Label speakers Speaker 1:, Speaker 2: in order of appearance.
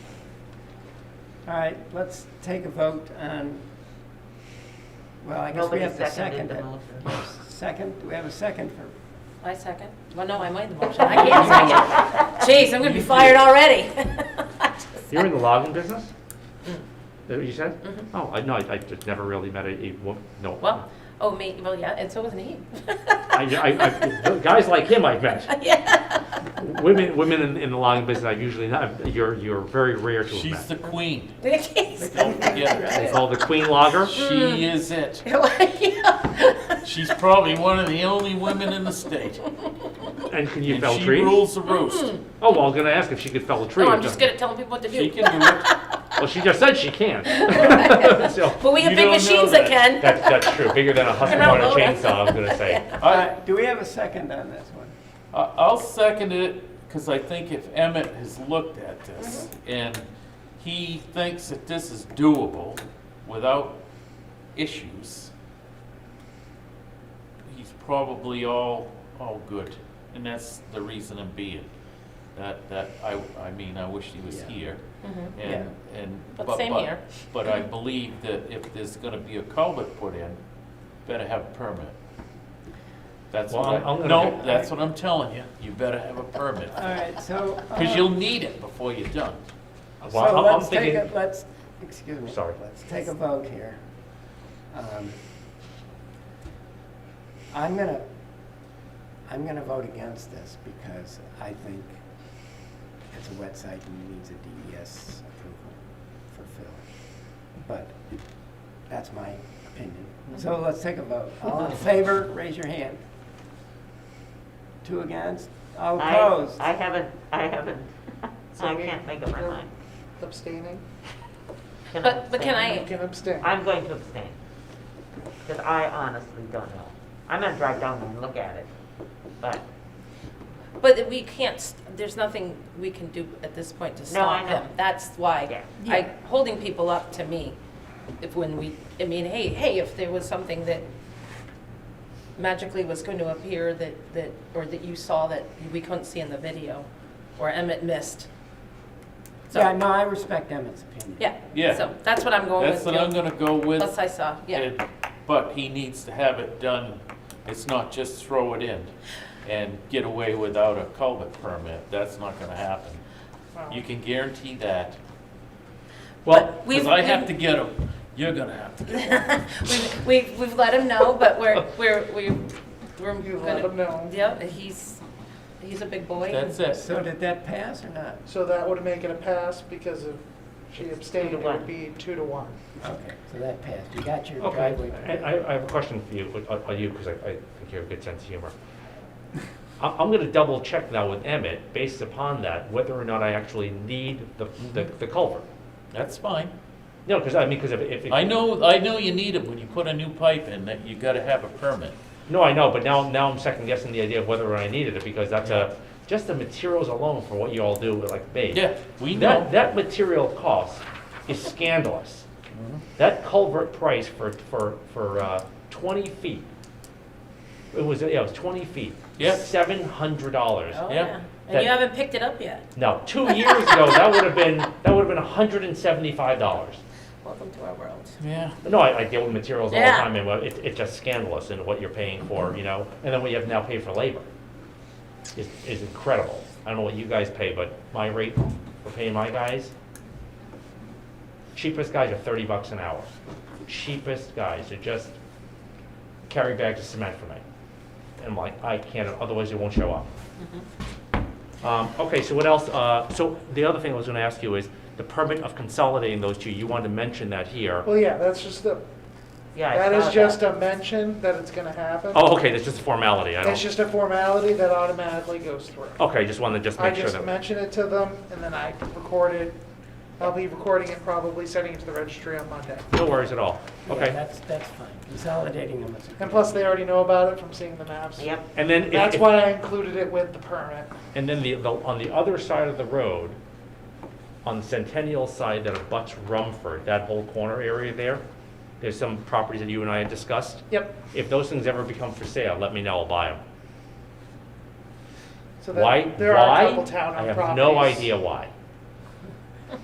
Speaker 1: All right, let's take a vote on, well, I guess we
Speaker 2: Nobody
Speaker 1: have to second
Speaker 2: seconded the
Speaker 1: it.
Speaker 2: motion.
Speaker 1: Second, do we have a second for,
Speaker 3: I second. Well, no, I made the motion. I can't second. Jeez, I'm gonna be fired already.
Speaker 4: You're in the logging business?
Speaker 3: Mm.
Speaker 4: Is that what you said?
Speaker 3: Mhm.
Speaker 4: Oh, I, no, I, I just never really met a, a, wo- no.
Speaker 3: Well, oh, me, well, yeah, and so was Nate.
Speaker 4: I, I, I, guys like him I've met.
Speaker 3: Yeah.
Speaker 4: Women, women in, in the logging business, I usually not, you're, you're very rare to have
Speaker 5: She's
Speaker 4: met.
Speaker 5: the queen. Don't
Speaker 3: Like,
Speaker 5: forget her.
Speaker 4: They call the queen logger.
Speaker 5: She is it.
Speaker 3: yeah.
Speaker 5: She's probably one of the only women in the state.
Speaker 4: And can you
Speaker 5: And
Speaker 4: fell
Speaker 5: she
Speaker 4: trees?
Speaker 5: rules the roost.
Speaker 4: Oh, well, I was gonna ask if she could fell a tree.
Speaker 3: No,
Speaker 4: or
Speaker 3: Oh, I'm just good
Speaker 4: something.
Speaker 3: at telling people what to
Speaker 5: She
Speaker 3: do.
Speaker 5: can do it.
Speaker 4: Well, she just said she can. So,
Speaker 3: But we have
Speaker 5: You
Speaker 3: big
Speaker 5: don't know
Speaker 3: machines that
Speaker 5: that.
Speaker 3: can.
Speaker 4: that's, that's true, bigger than a husband on a
Speaker 3: Hello.
Speaker 4: chainsaw, I'm gonna say.
Speaker 1: all
Speaker 5: I,
Speaker 1: right, do we have a second on this one?
Speaker 5: I- I'll second it because I think if Emmett has looked at this
Speaker 3: Mm-hmm.
Speaker 5: and he thinks that this is doable without issues, he's probably all, all good. And that's the reason I'm being. That, that, I, I mean, I wish he was
Speaker 1: Yeah.
Speaker 5: here.
Speaker 3: Mhm.
Speaker 5: And, and.
Speaker 3: But same here.
Speaker 5: But I believe that if there's gonna be a culvert put in, better have a permit. That's
Speaker 4: Well,
Speaker 5: what
Speaker 4: I'm- I'm gonna
Speaker 5: I, no,
Speaker 4: get-
Speaker 5: that's what I'm telling you, you better have a permit,
Speaker 1: All right, so. uh,
Speaker 5: cause you'll need it before you're done.
Speaker 4: Well, I'm-
Speaker 1: So
Speaker 4: I'm
Speaker 1: let's take
Speaker 4: thinking-
Speaker 1: a, let's, excuse me.
Speaker 4: Sorry.
Speaker 1: Let's take a vote here. Um, I'm gonna, I'm gonna vote against this because I think it's a wet site and needs a DES approval for fill. But that's my opinion. So let's take a vote. All in favor, raise your hand. Two against, all
Speaker 2: I,
Speaker 1: opposed.
Speaker 2: I haven't, I haven't,
Speaker 6: So
Speaker 2: I
Speaker 6: you-
Speaker 2: can't make up my
Speaker 6: you're
Speaker 2: mind.
Speaker 6: Abstaining?
Speaker 2: Can I
Speaker 3: But, but can
Speaker 2: abstain?
Speaker 3: I,
Speaker 6: You can abstain.
Speaker 2: I'm going to abstain, because I honestly don't know. I'm gonna drive down there and look at it, but,
Speaker 3: But we can't, st- there's nothing we can do at this point to
Speaker 2: I
Speaker 3: stop
Speaker 2: know.
Speaker 3: them. That's
Speaker 2: Yeah.
Speaker 3: why, I, holding people up to me, if when we, I mean, hey, hey, if there was something that magically was going to appear that, that, or that you saw that we couldn't see in the video, or Emmett missed. So-
Speaker 1: Yeah, no, I respect Emmett's opinion.
Speaker 3: Yeah.
Speaker 5: Yeah.
Speaker 3: So that's what I'm going with.
Speaker 5: That's what I'm
Speaker 3: Bill.
Speaker 5: gonna go with.
Speaker 3: Plus I saw, yeah.
Speaker 5: And- But he needs to have it done, it's not just throw it in and get away without a culvert permit, that's not gonna happen. You can guarantee that,
Speaker 4: Well,
Speaker 3: We've-
Speaker 5: cause I have
Speaker 3: we've-
Speaker 5: to get them, you're gonna have to get 'em.
Speaker 3: We've, we've, we've let him know, but we're, we're, we're, we're
Speaker 6: You
Speaker 3: gonna.
Speaker 6: let them know.
Speaker 3: Yep, he's, he's a big boy.
Speaker 5: That's it.
Speaker 1: So did that pass or not?
Speaker 6: So that would make it a pass because if she abstained,
Speaker 2: to
Speaker 6: it
Speaker 2: one.
Speaker 6: would be two to one.
Speaker 1: Okay, so that passed. You got your
Speaker 4: okay,
Speaker 1: driveway.
Speaker 4: I, I- I have a question for you, uh, on, on you, because I, I think you have a good sense of humor. I'm, I'm gonna double check now with Emmett, based upon that, whether or not I actually need the, the,
Speaker 5: Mm-hmm.
Speaker 4: the culvert.
Speaker 5: That's fine.
Speaker 4: No, because I mean, because if, if. it-
Speaker 5: I know, I know you need it when you put a new pipe in, that you gotta have a permit.
Speaker 4: No, I know, but now, now I'm second guessing the idea of whether or not I needed it, because that's a, just the materials alone for what you all do with like me.
Speaker 5: Yeah, we know.
Speaker 4: That, that material cost is scandalous. That culvert price for, for, for, uh, twenty feet, it was, yeah, it was twenty feet.
Speaker 5: Yeah.
Speaker 4: Seven hundred dollars.
Speaker 3: Oh,
Speaker 5: Yeah.
Speaker 3: yeah.
Speaker 4: That-
Speaker 3: And you haven't picked it up yet.
Speaker 4: Now, two years ago, that would have been, that would have been hundred and seventy-five dollars.
Speaker 3: Welcome to our world.
Speaker 5: Yeah.
Speaker 4: No, I, I deal with materials all the
Speaker 3: Yeah.
Speaker 4: time, and well, it, it's just scandalous in what you're paying for, you know, and then what you have now paid for labor is, is incredible. I don't know what you guys pay, but my rate for paying my guys, cheapest guys are thirty bucks an hour. Cheapest guys to just carry bags of cement for me. And I'm like, I can't, otherwise they won't show up. Um, okay, so what else, uh, so the other thing I was gonna ask you is the permit of consolidating those two, you wanted to mention that here.
Speaker 6: Well, yeah, that's just the,
Speaker 2: yeah, I
Speaker 6: that
Speaker 2: saw
Speaker 6: is just a mention that it's gonna happen.
Speaker 4: Oh, okay, that's just a formality, I
Speaker 6: It's
Speaker 4: don't,
Speaker 6: just a formality that automatically goes through.
Speaker 4: okay, just wanted to just
Speaker 6: I
Speaker 4: make sure
Speaker 6: just
Speaker 4: that.
Speaker 6: mention it to them and then I record it. I'll be recording it, probably sending it to the registry on Monday.
Speaker 4: No worries at all,
Speaker 1: Yeah,
Speaker 4: okay.
Speaker 1: That's, that's fine. Consolidating them is. a
Speaker 6: And
Speaker 1: good-
Speaker 6: plus, they already know about it from seeing the maps.
Speaker 2: Yep,
Speaker 4: And then, if-
Speaker 6: That's
Speaker 4: if-
Speaker 6: why I included it with the permit.
Speaker 4: and then the, the- on the other side of the road, on the Centennial side that abuts Rumford, that whole corner area there, there's some properties that you and I had discussed.
Speaker 6: Yep.
Speaker 4: If those things ever become for sale, let me know, I'll buy them.
Speaker 6: So that-
Speaker 4: Why,
Speaker 6: There are a
Speaker 4: why?
Speaker 6: couple town-owned
Speaker 4: I have no
Speaker 6: properties.
Speaker 4: idea why.